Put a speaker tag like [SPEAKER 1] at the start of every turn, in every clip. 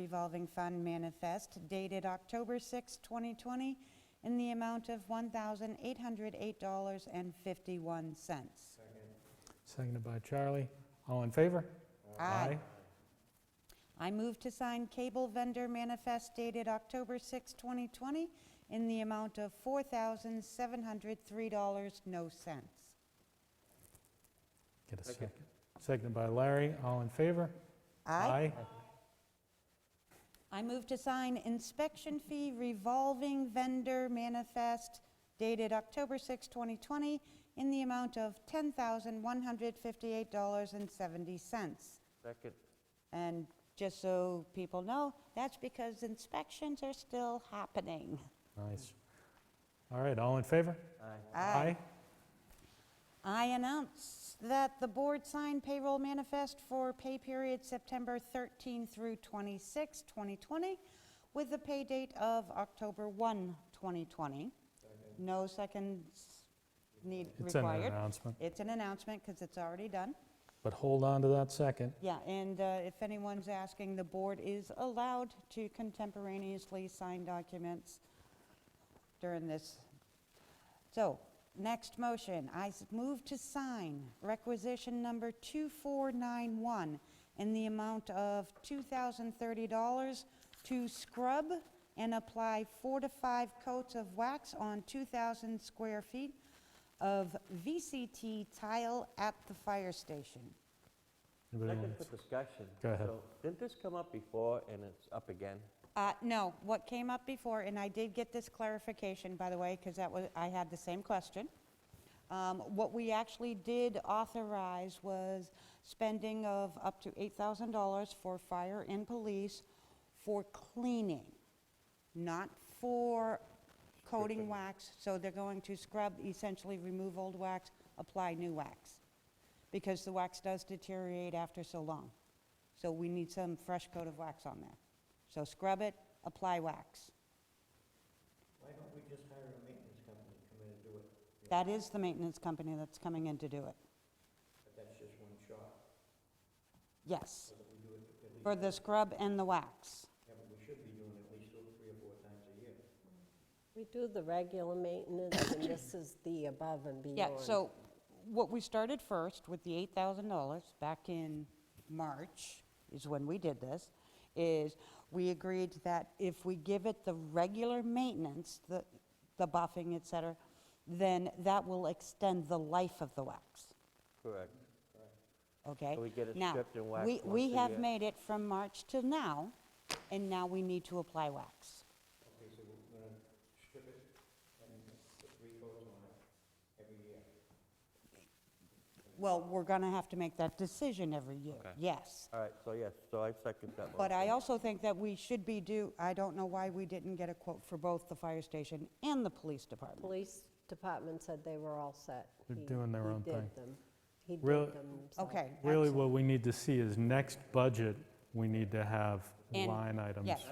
[SPEAKER 1] revolving fund manifest dated October 6, 2020, in the amount of $1,808.51.
[SPEAKER 2] Seconded by Charlie. All in favor?
[SPEAKER 1] I move to sign cable vendor manifest dated October 6, 2020, in the amount of $4,703.00.
[SPEAKER 2] Get a second. Seconded by Larry. All in favor?
[SPEAKER 1] I move to sign inspection fee revolving vendor manifest dated October 6, 2020, in the amount of $10,158.70.
[SPEAKER 3] Second.
[SPEAKER 1] And just so people know, that's because inspections are still happening.
[SPEAKER 2] Nice. All right, all in favor?
[SPEAKER 3] Aye.
[SPEAKER 1] I announce that the board signed payroll manifest for pay period September 13 through 26, 2020, with the pay date of October 1, 2020. No seconds need
[SPEAKER 2] It's in an
[SPEAKER 1] required.
[SPEAKER 2] announcement,
[SPEAKER 1] It's an announcement because it's already done.
[SPEAKER 2] but hold on to that second.
[SPEAKER 1] Yeah, and uh, if anyone's asking, the board is allowed to contemporaneously sign documents during this. So, next motion, I s- move to sign requisition number 2491 in the amount of $2,030 to scrub and apply four to five coats of wax on 2,000 square feet of VCT tile at the fire station.
[SPEAKER 2] Anybody
[SPEAKER 3] Second
[SPEAKER 2] want-
[SPEAKER 3] for discussion.
[SPEAKER 2] Go ahead.
[SPEAKER 3] So, Didn't this come up before and it's up again?
[SPEAKER 1] Uh, No, what came up before, and I did get this clarification, by the way, because that was, I had the same question. Um, What we actually did authorize was spending of up to $8,000 for fire and police for cleaning, not for coating wax. So they're going to scrub, essentially remove old wax, apply new wax, because the wax does deteriorate after so long. So we need some fresh coat of wax on there. So scrub it, apply wax. Why don't we just hire a maintenance company to come in and do it? That is the maintenance company that's coming in to do it. But that's just one shot? Yes. For the scrub and the wax.
[SPEAKER 4] We do the regular maintenance, and this is the above and beyond.
[SPEAKER 1] Yeah, so what we started first with the $8,000 back in March is when we did this, is we agreed that if we give it the regular maintenance, the, the buffing, et cetera, then that will extend the life of the wax,
[SPEAKER 3] Correct.
[SPEAKER 1] okay?
[SPEAKER 3] So we get it
[SPEAKER 1] Now,
[SPEAKER 3] stripped and waxed
[SPEAKER 1] we-
[SPEAKER 3] once
[SPEAKER 1] We
[SPEAKER 3] a
[SPEAKER 1] have
[SPEAKER 3] year.
[SPEAKER 1] made it from March till now, and now we need to apply wax. Well, we're going to have to make that decision every year,
[SPEAKER 3] Okay.
[SPEAKER 1] yes.
[SPEAKER 3] All right, so yes, so I second that motion.
[SPEAKER 1] But I also think that we should be due, I don't know why we didn't get a quote for both the fire station and the police department.
[SPEAKER 4] Police department said they were all set.
[SPEAKER 2] They're
[SPEAKER 4] He-
[SPEAKER 2] doing their
[SPEAKER 4] he
[SPEAKER 2] own
[SPEAKER 4] did
[SPEAKER 2] thing.
[SPEAKER 4] them. He did
[SPEAKER 2] Really-
[SPEAKER 4] them himself.
[SPEAKER 1] Okay.
[SPEAKER 2] Really,
[SPEAKER 1] excellent.
[SPEAKER 2] what we need to see is next budget, we need to have
[SPEAKER 1] And-
[SPEAKER 2] line items.
[SPEAKER 1] Yes,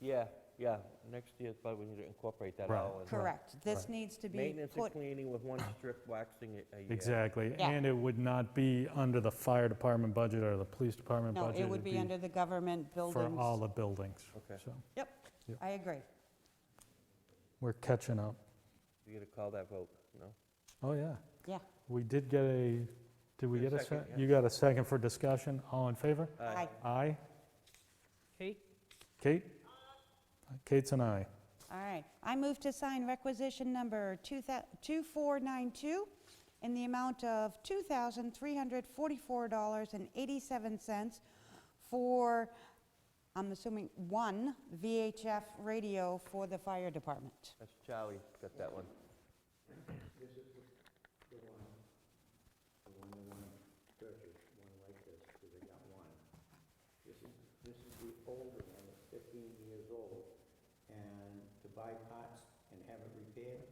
[SPEAKER 3] Yeah, yeah, next year, but we need to incorporate that
[SPEAKER 2] Right.
[SPEAKER 3] all. in.
[SPEAKER 1] correct. This needs to be
[SPEAKER 3] Maintenance and
[SPEAKER 1] put,
[SPEAKER 3] cleaning with one strip waxing a- a year.
[SPEAKER 2] Exactly.
[SPEAKER 1] Yeah.
[SPEAKER 2] And it would not be under the fire department budget or the police department
[SPEAKER 1] no,
[SPEAKER 2] budget.
[SPEAKER 1] it would
[SPEAKER 2] It'd
[SPEAKER 1] be under the government
[SPEAKER 2] For
[SPEAKER 1] buildings.
[SPEAKER 2] all the buildings.
[SPEAKER 3] Okay.
[SPEAKER 2] So
[SPEAKER 1] Yep,
[SPEAKER 2] Yep.
[SPEAKER 1] I agree.
[SPEAKER 2] we're catching up.
[SPEAKER 3] You gonna call that vote, no?
[SPEAKER 2] Oh, yeah.
[SPEAKER 1] Yeah.
[SPEAKER 2] We did get a, did we
[SPEAKER 3] Get a
[SPEAKER 2] get a
[SPEAKER 3] second,
[SPEAKER 2] second?
[SPEAKER 3] yeah.
[SPEAKER 2] You got a second for discussion? All in favor?
[SPEAKER 1] Aye.
[SPEAKER 2] Aye.
[SPEAKER 3] Kate?
[SPEAKER 2] Kate? Kate's an aye.
[SPEAKER 1] All right. I move to sign requisition number 2000 2492 in the amount of $2,344.87 for, I'm assuming, one VHF radio for the fire department.
[SPEAKER 3] That's Charlie, got that one.
[SPEAKER 5] This is the older one, it's fifteen years old, and to buy parts and have it repaired,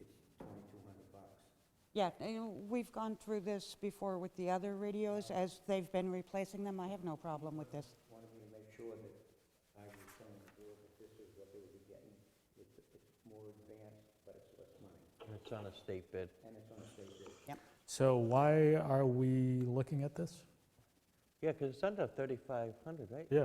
[SPEAKER 5] it's twenty-two hundred bucks.
[SPEAKER 1] Yeah, and we've gone through this before with the other radios, as they've been replacing them. I have no problem with this.
[SPEAKER 5] Wanted me to make sure that I was telling the board that this is what they would be getting. It's, it's more advanced, but it's less money,
[SPEAKER 3] And It's on a state bid.
[SPEAKER 5] and it's on a state bid.
[SPEAKER 2] So why are we looking at this?
[SPEAKER 3] Yeah, because it's under 3,500, right?
[SPEAKER 2] Yeah.